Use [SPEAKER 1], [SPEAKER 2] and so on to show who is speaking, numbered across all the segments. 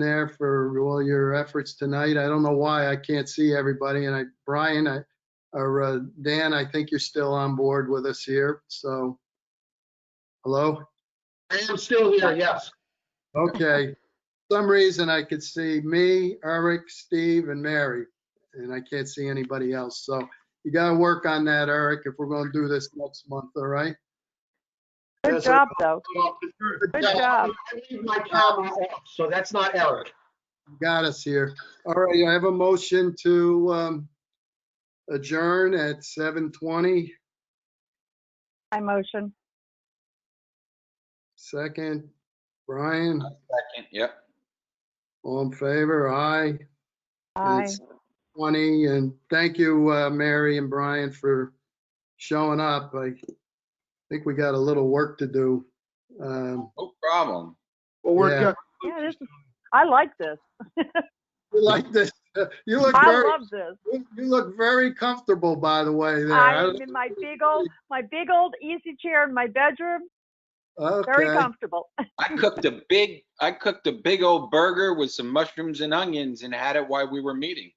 [SPEAKER 1] there for all your efforts tonight. I don't know why I can't see everybody. And I, Brian, I, or uh, Dan, I think you're still on board with us here. So, hello?
[SPEAKER 2] I am still here, yes.
[SPEAKER 1] Okay. For Some reason I could see me, Eric, Steve, and Mary, and I can't see anybody else. So you got to work on that, Eric, if we're going to do this next month, all right?
[SPEAKER 3] Good
[SPEAKER 2] Yes,
[SPEAKER 3] job, though. Good
[SPEAKER 2] Yeah,
[SPEAKER 3] job.
[SPEAKER 2] I leave my comma off, so that's not Eric.
[SPEAKER 1] Got us here. All right, I have a motion to um, adjourn at 7:20.
[SPEAKER 3] I motion.
[SPEAKER 1] Second, Brian,
[SPEAKER 4] Second, yep.
[SPEAKER 1] all in favor? Aye.
[SPEAKER 3] Aye.
[SPEAKER 1] It's 20, and thank you, uh, Mary and Brian, for showing up. I think we got a little work to do. Um,
[SPEAKER 4] No problem.
[SPEAKER 2] Well,
[SPEAKER 1] Yeah.
[SPEAKER 2] we're,
[SPEAKER 3] Yeah, this is, I like this.
[SPEAKER 1] You like this? You look
[SPEAKER 3] I
[SPEAKER 1] very,
[SPEAKER 3] love this.
[SPEAKER 1] you look very comfortable, by the way, there.
[SPEAKER 3] I'm in my big old, my big old easy chair in my bedroom, very
[SPEAKER 1] Okay,
[SPEAKER 3] comfortable.
[SPEAKER 4] I cooked a big, I cooked a big old burger with some mushrooms and onions and had it while we were meeting.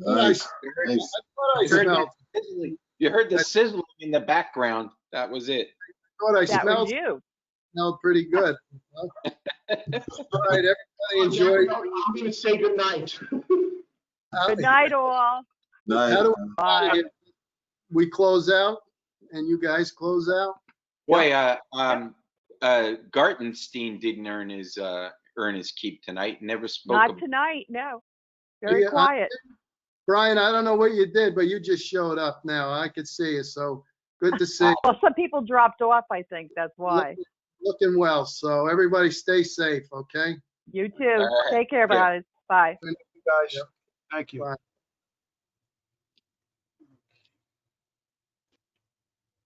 [SPEAKER 1] nice. I
[SPEAKER 4] You heard
[SPEAKER 1] smelled-
[SPEAKER 4] the sizzling- you heard the sizzling in the background. That was it.
[SPEAKER 1] Thought I
[SPEAKER 3] That was
[SPEAKER 1] smelled,
[SPEAKER 3] you.
[SPEAKER 1] smelled pretty good. All right, everybody enjoy.
[SPEAKER 2] I'm gonna say goodnight.
[SPEAKER 3] Good night, all. Uh,
[SPEAKER 1] How
[SPEAKER 5] Nice.
[SPEAKER 1] do
[SPEAKER 3] Bye.
[SPEAKER 1] we- we close out and you guys close out?
[SPEAKER 4] Boy, uh, um, uh, Gartenstein didn't earn his, uh, earn his keep tonight. Never spoke.
[SPEAKER 3] Not
[SPEAKER 4] ab-
[SPEAKER 3] tonight, no.
[SPEAKER 1] Yeah,
[SPEAKER 3] Very
[SPEAKER 1] I-
[SPEAKER 3] quiet.
[SPEAKER 1] Brian, I don't know what you did, but you just showed up now. I could see you, so good to see. you.
[SPEAKER 3] Well, some people dropped off, I think, that's why.
[SPEAKER 1] Looking well, so everybody stay safe, okay?
[SPEAKER 3] You too.
[SPEAKER 4] right.
[SPEAKER 3] Take care,
[SPEAKER 4] Yeah.
[SPEAKER 3] guys. Bye.
[SPEAKER 2] Guys, thank you.